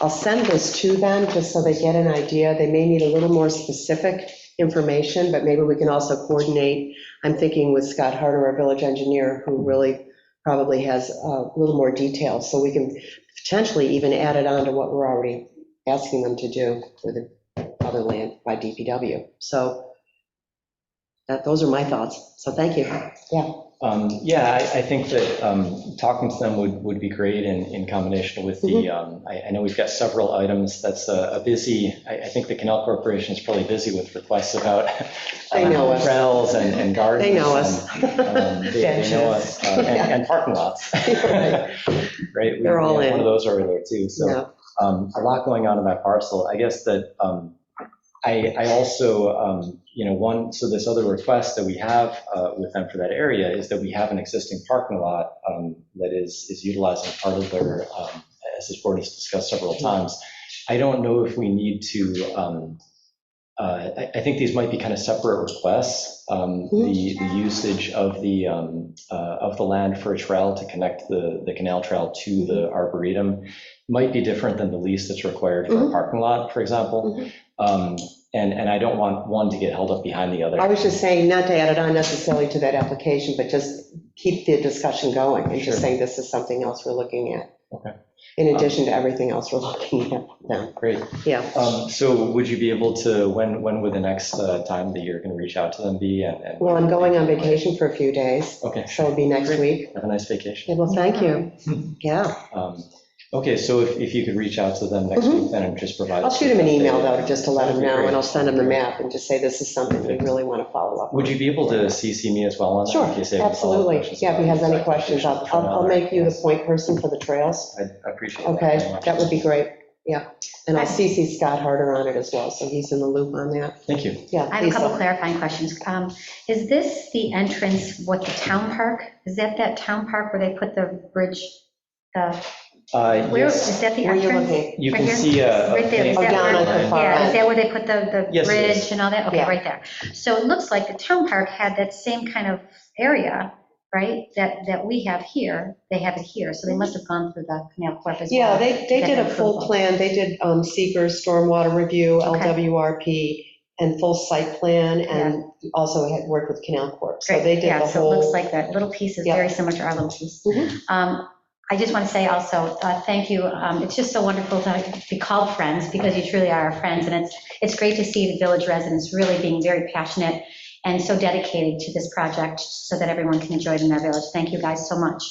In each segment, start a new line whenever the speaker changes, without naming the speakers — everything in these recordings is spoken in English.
I'll send this to them, just so they get an idea. They may need a little more specific information, but maybe we can also coordinate. I'm thinking with Scott Harder, our village engineer, who really probably has a little more detail, so we can potentially even add it on to what we're already asking them to do for the other land by DPW. So that, those are my thoughts, so thank you.
Um, Yeah, I, I think that um, talking to them would, would be great in, in combination with the,
Mm-hmm.
um, I, I know we've got several items, that's a a busy, I, I think the Canal Corporation is probably busy with requests about
They know us.
trails and and gardens.
They know us.
and, um, They they know us, uh, and and parking lots.
Right.
Right? we-
They're all
we had
in.
One of those earlier too, so
Yeah.
um, a lot going on in that parcel. I guess that um, I, I also, um, you know, one, so this other request that we have uh, with them for that area is that we have an existing parking lot um, that is, is utilizing part of their, um, as this board has discussed several times. I don't know if we need to, um, uh, I, I think these might be kind of separate requests. Um, The, the usage of the, um, uh, of the land for a trail to connect the, the canal trail to the
Mm-hmm.
arboretum might be different than the lease that's required for a
Mhm.
parking lot, for example.
Mhm.
Um, And, and I don't want one to get held up behind the other.
I was just saying, not to add it on necessarily to that application, but just keep the discussion going, and
Sure.
just saying this is something else we're looking at.
Okay.
In addition to everything else we're looking at now,
Great.
yeah.
Um, So would you be able to, when, when would the next uh, time that you're going to reach out to them be? And- and-
Well, I'm going on vacation for a few days,
Okay,
so it'll be next week.
have a nice vacation.
Yeah, well, thank you, yeah.
Um, Okay, so if, if you could reach out to them next
Mhm.
week, then and just provide.
I'll
us
shoot him
with
an
update.
email, though, just to let him
That'd be
know, and I'll
great.
send him the map, and just say this is something we really want to follow up.
Would you be able to CC me as well on that?
Sure,
in case they have follow-up
absolutely,
questions
yeah, if he
about
has any
the
questions, I'll,
application
I'll I'll make you the
Yes,
point person for the trails.
I appreciate that. very
Okay,
much.
that would be great, yeah. And I'll CC Scott Harder on it as well, so he's in the loop on that,
Thank you.
yeah.
I have a couple clarifying questions. Um, Is this the entrance with the town park? Is that that town park where they put the bridge? the-
Uh,
Where,
Yes,
is that the
Where you
entrance?
looking?
you
Right
can
here?
see a. a
Right there, is
paint
that
Oh, Down
line.
at the far
Yeah, is
end.
that where they put the, the
Yes, it is.
bridge and all that? Okay,
Yeah.
right there. So it looks like the town park had that same kind of area, right, that, that we have here. They have it here, so they must have gone through the canal corp as well.
Yeah, they, they
to
did
get
a full
approval.
plan, they did um, seekers, stormwater review,
Okay.
LWRP, and full site plan, and also had worked with Canal Corp. So
Great,
they did
yeah,
the
so it looks
whole,
like that little piece is
Yeah.
very similar to our little piece.
Mhm.
Um, I just want to say also, uh, thank you, Um, it's just so wonderful to be called friends, because you truly are our friends, and it's, it's great to see the village residents really being very passionate and so dedicated to this project, so that everyone can enjoy it in their village. Thank you guys so much.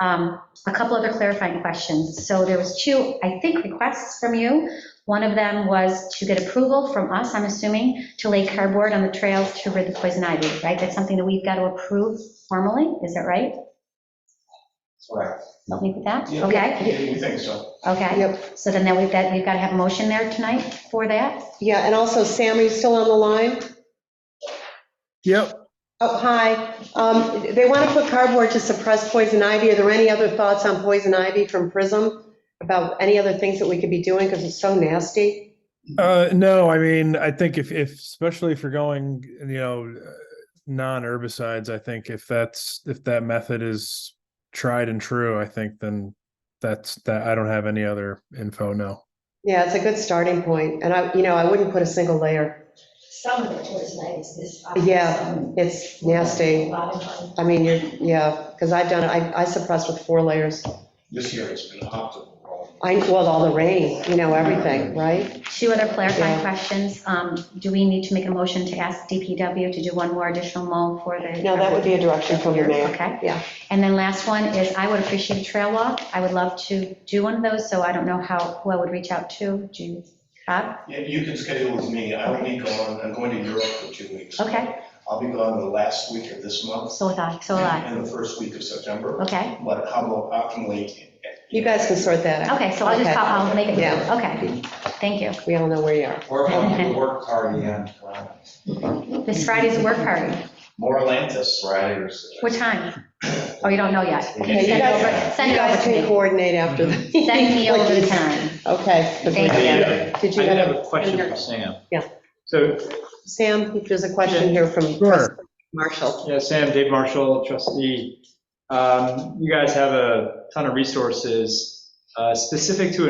Um, A couple other clarifying questions. So there was two, I think, requests from you. One of them was to get approval from us, I'm assuming, to lay cardboard on the trails to rid the poison ivy, right? That's something that we've got to approve formally, is that right?
Correct.
Agree with that?
Yeah.
Okay,
We think so.
okay.
yep,
So then that we've got, we've got to have a motion there tonight for that?
yeah, and also, Sam, are you still on the line?
Yep,
Oh, hi, Um, they want to put cardboard to suppress poison ivy, are there any other thoughts on poison ivy from Prism? About any other things that we could be doing, because it's so nasty?
uh, no, I mean, I think if, if, especially if you're going, you know, uh, non-herbicides, I think if that's, if that method is tried and true, I think then that's, that, I don't have any other info, no.
Yeah, it's a good starting point, and I, you know, I wouldn't put a single layer.
Some of the poisonitis is.
Yeah,
some-
It's
A
nasty.
lot of them.
I mean, you're, yeah, because I've done, it. I I suppressed with four layers.
This year it's been optimal.
I, well, all the rain, you know, everything, right?
Two other clarifying
Yeah.
questions. Um, Do we need to make a motion to ask DPW to do one more additional mow for the?
No, that would be a direction from the mayor.
Okay.
Yeah.
And then last one is, I would appreciate a trail walk. I would love to do one of those, so I don't know how, who I would reach out to. Do you, Bob?
Yeah, you can schedule with me. I will be gone. I'm going to Europe for two weeks.
Okay.
I'll be gone the last week of this month.
So would I, so would I.
And the first week of September.
Okay,
But how about optimally? uh,
You guys can sort that out.
okay, so I'll just,
Okay.
I'll make it,
Yeah.
okay. Thank you.
We all know where you are.
Or how about the work party on uh,
This Friday's a work party.
more Atlantis? Friday or.
What time? Oh, you don't know yet.
Yeah, you
Send
guys-
over- Send
You
it
guys
over
can
to me.
coordinate after. the-
Send me over the
Please.
time.
Okay. 'cause we-
Thank
Did you
I did
have,
have a question for Sam.
Yeah.
So,
Sam, there's a question here from
Sure.
Marshall.
yeah, Sam, Dave Marshall, trustee, um, you guys have a ton of resources uh, specific to